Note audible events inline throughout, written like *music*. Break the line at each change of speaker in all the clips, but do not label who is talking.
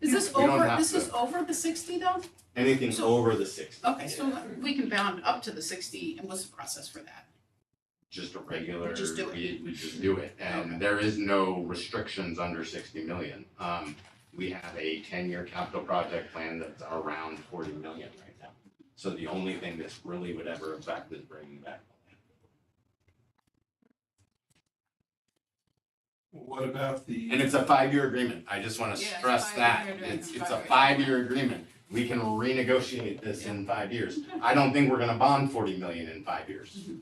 Is this
We don't
over,
have
this is
to.
over the sixty though?
Anything
So-
over the sixty,
Okay, so we can bound up to the sixty and what's the process for that?
just a regular,
We just do it.
we, we just do it,
Okay.
and there is no restrictions under sixty million. Um, we have a ten-year capital project plan that's around forty million right now. So the only thing that's really would ever affect is bringing back.
What about
And
the,
it's a five-year agreement, I just wanna
Yeah, it's a
stress that,
five-year agreement.
it's, it's a
Five-year.
five-year agreement. We can renegotiate this in five years. I don't think we're gonna bond forty million in five years.
Mm-hmm.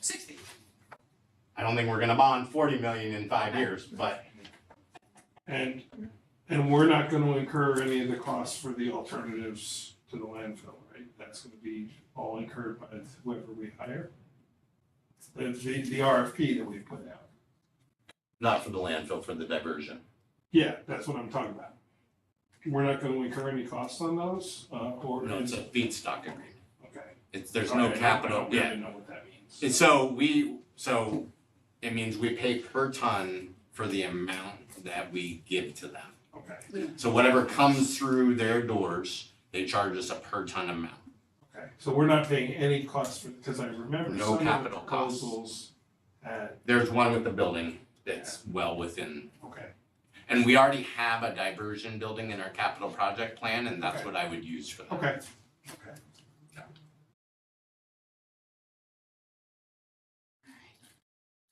Sixty,
I don't think we're gonna bond forty million in five years, but
and, and we're not gonna incur any of the costs for the alternatives to the landfill, right? That's gonna be all incurred by whoever we hire. The, the, the RFP that we put out.
Not for the landfill, for the diversion.
Yeah, that's what I'm talking about. We're not gonna incur any costs on those, uh, or.
No, it's a feedstock agreement.
Okay.
It's, there's no
Alright, I
capital,
don't
yeah.
really know what that means.
And so we, so it means we pay per ton for the amount that we give to them.
Okay,
So whatever comes through their doors, they charge us a per ton amount.
okay, so we're not paying any costs for, because I remember
No
some of the
capital costs.
proposals at,
There's one with the building that's well within,
okay,
and we already have a diversion building in our capital project plan, and that's
Okay.
what I would use for that.
okay.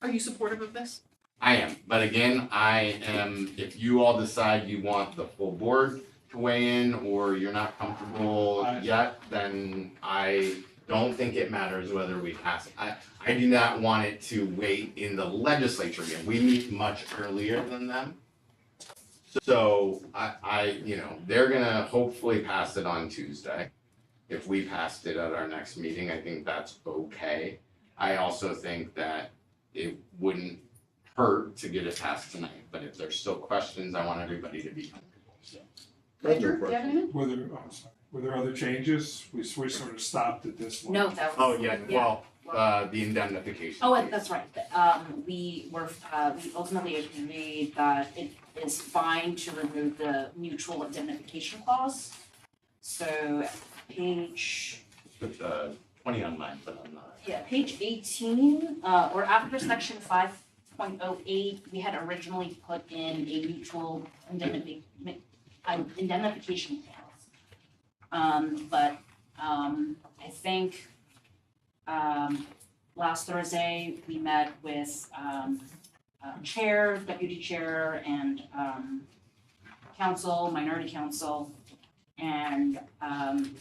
are you supportive of this?
I am, but again, I am, if you all decide you want the full board to weigh in or you're not comfortable
I-
yet, then I don't think it matters whether we pass it. I, I do not want it to wait in the legislature again. We meet much earlier than them. So I, I, you know, they're gonna hopefully pass it on Tuesday. If we passed it at our next meeting, I think that's okay. I also think that it wouldn't hurt to get it passed tonight, but if there's still questions, I want everybody to be comfortable, so.
Ledger, do you have anything?
Were there, oh, I'm sorry, were there other changes? We, we sort of stopped at this one.
No, that
Oh,
was.
yeah, well, uh, the indemnification.
Oh,
piece.
and that's right, The- um, we were, uh, we ultimately agreed that it is fine to remove the mutual indemnification clause. So page,
Put the twenty on mine, but I'm not.
yeah, page eighteen, uh, or after section five point oh eight, we had originally put in a mutual indemnifi- um, indemnification clause. Um, but, um, I think, um, last Thursday, we met with, um, uh, chair, deputy chair, and, um, council, minority council, and, um,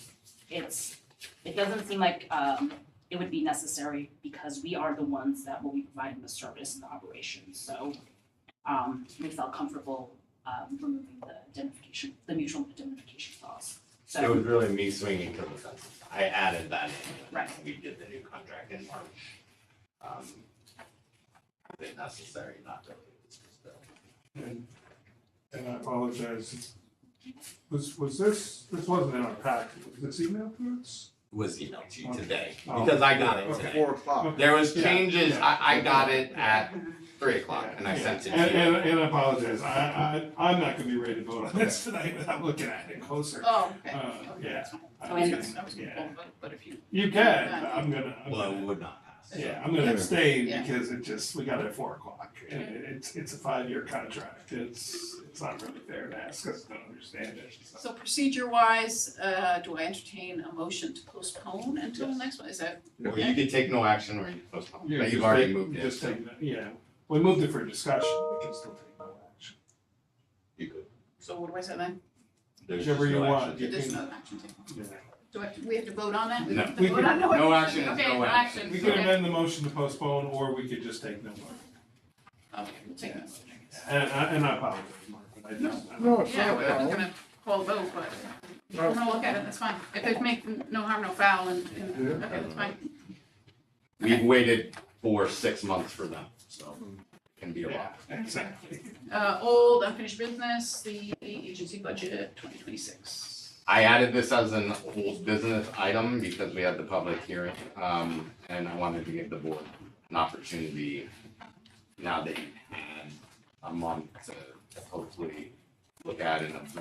it's, it doesn't seem like, um, it would be necessary because we are the ones that will be providing the service and the operation, so, um, we felt comfortable, um, removing the indemnification, the mutual indemnification clause, so.
It was really me swinging to the fence. I added that in. when
Right.
We did the new contract in March. Um, If necessary, not to.
And and I apologize. Was, was this, this wasn't in our packet, was this emailed to us?
Was emailed to you
Okay.
today,
Oh.
because I got it
Okay.
today.
Four o'clock.
There was
Yeah,
changes,
yeah.
I, I got it at three o'clock and I sent it
And,
to
and,
you.
and I apologize, I, I, I'm not gonna be ready to vote
*laughs*
on this tonight without looking at it closer.
Oh, okay,
Uh,
okay,
yeah.
that's fine.
I
Oh,
I
was
and-
was
gonna-
gonna, I was gonna
yeah.
vote, but- but if you,
You can, but I'm gonna, I'm
Well, it
gonna,
would not pass.
yeah, I'm gonna abstain
Yeah.
because it just, we got it at four o'clock. And it- it's, it's a five-year contract, it's, it's not really fair to ask us to understand it, so.
so procedure wise, uh, do I entertain a motion to postpone until the next one, is that,
Or you could take no action or you could postpone,
Yeah,
but
just
you've already
take-
moved it.
Just
so
take, that- yeah, we moved it for discussion, we can still take no action.
You could.
so what do I say then?
There's
Whichever
just no
you want.
action.
You
There's
can-
no action taken,
Yeah.
do I, we have to vote on that?
No.
have to
We
vote
can-
on-
no action is
Okay,
no
no
action.
action,
We could
okay.
amend the motion to postpone, or we could just take no action.
Okay, we'll take that.
And, I- and I apologize, Mark, but I just.
No, it's
Yeah,
not.
we're not gonna call a vote, but we're gonna look at it, that's fine. If they make no harm, no foul, and, and, okay, that's fine.
We've waited for six months for them, so it can be a
Yeah,
lot.
exactly.
Uh, old unfinished business, the agency budget twenty twenty-six.
I added this as an old business item because we had the public hearing, um, and I wanted to give the board an opportunity now that you've had a month to hopefully look at and absorb